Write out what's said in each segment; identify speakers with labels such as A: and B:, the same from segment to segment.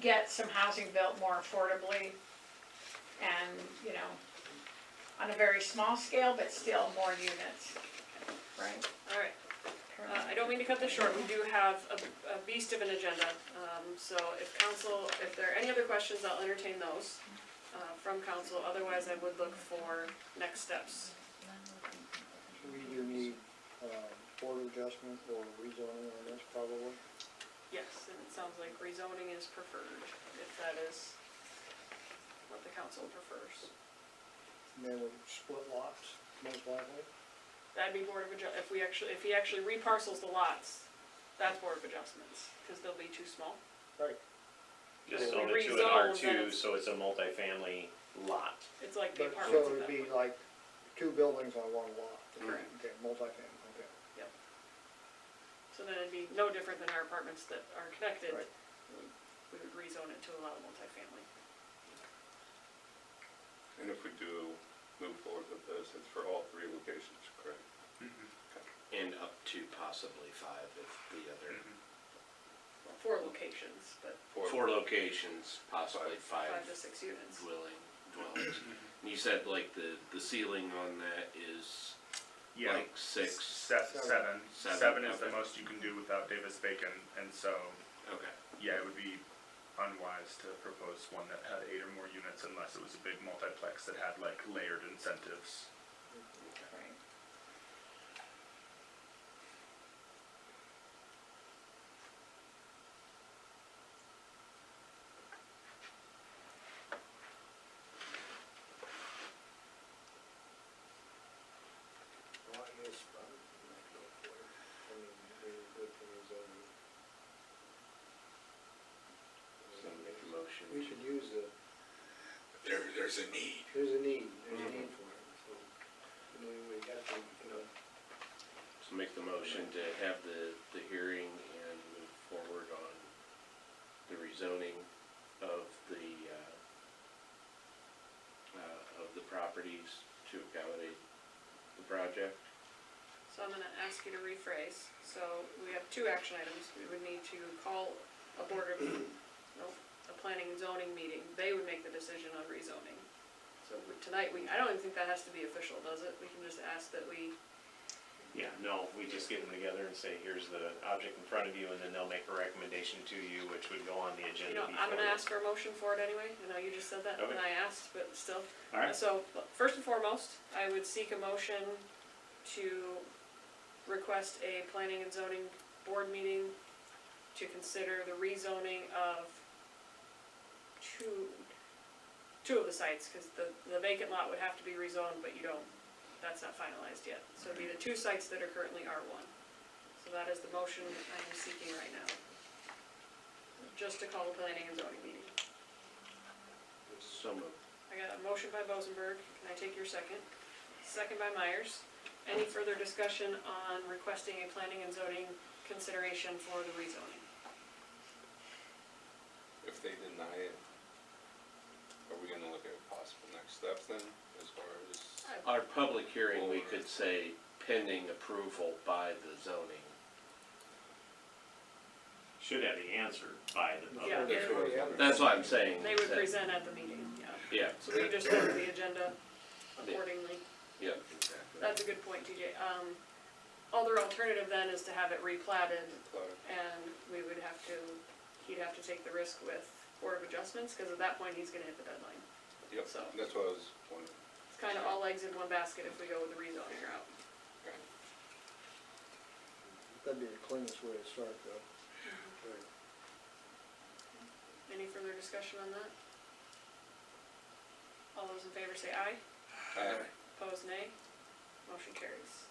A: get some housing built more affordably and, you know, on a very small scale, but still more units, right?
B: All right, uh, I don't mean to cut this short, we do have a, a beast of an agenda. Um, so if council, if there are any other questions, I'll entertain those, uh, from council, otherwise I would look for next steps.
C: So we do need, um, board adjustment or rezoning on this probably.
B: Yes, and it sounds like rezoning is preferred, if that is what the council prefers.
C: And then we split lots, most likely.
B: That'd be board of adjust, if we actually, if he actually reparcels the lots, that's board of adjustments, cause they'll be too small.
C: Right.
B: If
D: Just zone
B: we
D: it to an
B: rezone,
D: R
B: then
D: two,
B: it's-
D: so it's a multifamily lot.
B: It's like the
C: But,
B: apartments at that
C: so it'd be
B: point.
C: like two buildings on one lot.
B: Correct.
C: Okay, multifamily, okay.
B: So then it'd be no different than our apartments that are connected.
C: Right.
B: We would rezone it to allow multifamily.
E: And if we do move forward with this, it's for all three locations, correct?
F: And up to possibly five if the other,
B: Four locations, but
F: four locations, possibly five
B: five to six units.
F: dwelling, dwellings. And you said like the, the ceiling on that is
G: Yeah,
F: like six,
G: se- seven.
F: Seven,
G: Seven is the
F: okay.
G: most you can do without Davis Bacon, and so,
F: okay.
G: yeah, it would be unwise to propose one that had eight or more units unless it was a big multiplex that had like layered incentives.
A: Right.
C: Well, I guess probably might go for it. I mean, they were good for rezoning.
F: So make a motion
C: We
F: to,
C: should use the,
E: There, there's a need.
C: there's a need, there's a
F: Mm-hmm.
C: need for it, so, I mean, we have to, you know,
F: so make the motion to have the, the hearing and move forward on the rezoning of the, uh, uh, of the properties to accommodate the project.
B: So I'm gonna ask you to rephrase. So we have two action items. We would need to call a board of, no, a planning and zoning meeting. They would make the decision on rezoning. So we- tonight, we, I don't even think that has to be official, does it? We can just ask that we,
D: Yeah, no, we just get them together and say, here's the object in front of you, and then they'll make a recommendation to you, which would go on the
B: you
D: agenda
B: know,
D: before.
B: I'm gonna ask for a motion for it anyway. I know you just said that and
D: Okay.
B: I asked, but still.
D: All right,
B: So, first and foremost, I would seek a motion to request a planning and zoning board meeting to consider the rezoning of two, two of the sites, because the, the vacant lot would have to be rezoned, but you don't, that's not finalized yet. So it'd be the two sites that are currently R one. So that is the motion I am seeking right now. Just to call a planning and zoning meeting.
F: So moved.
B: I got a motion by Bozenberg, can I take your second? Second by Myers. Any further discussion on requesting a planning and zoning consideration for the rezoning?
E: If they deny it, are we gonna look at possible next steps then, as far as?
F: Our public hearing, we could say pending approval by the zoning.
D: should have the answer by the
B: Yeah.
D: public.
C: that's what we have.
F: That's what I'm saying.
B: They would
F: that-
B: present at the meeting, yeah.
F: Yeah,
B: So we just go to the agenda accordingly.
F: yeah, exactly.
B: That's a good point, TJ. Um, other alternative then is to have it replatted and we would have to, he'd have to take the risk with Board of Adjustments, because at that point, he's gonna hit the deadline.
E: Yep,
B: So-
E: that's what I was wondering.
B: It's kind of all eggs in one basket if we go with the rezoning route.
E: Okay.
C: that'd be the cleanest way to start though. Right.
B: Any further discussion on that? All those in favor say aye,
E: Uh,
B: opposed nay, motion carries.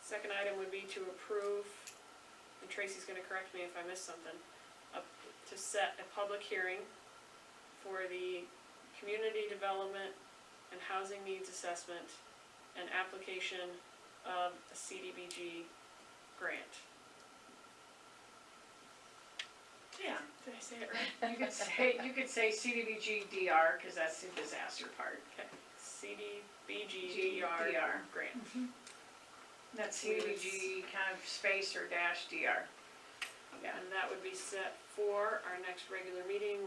B: Second item would be to approve, and Tracy's gonna correct me if I missed something, up- to set a public hearing for the community development and housing needs assessment and application of a CDBG grant.
A: Yeah,
B: Did I say it right?
A: you could say, you could say CDBG DR, cause that's the disaster part.
B: Okay, CDBG DR
A: DR.
B: grant.
A: That's CDBG kind of space or dash DR.
B: And that would be set for our next regular meeting,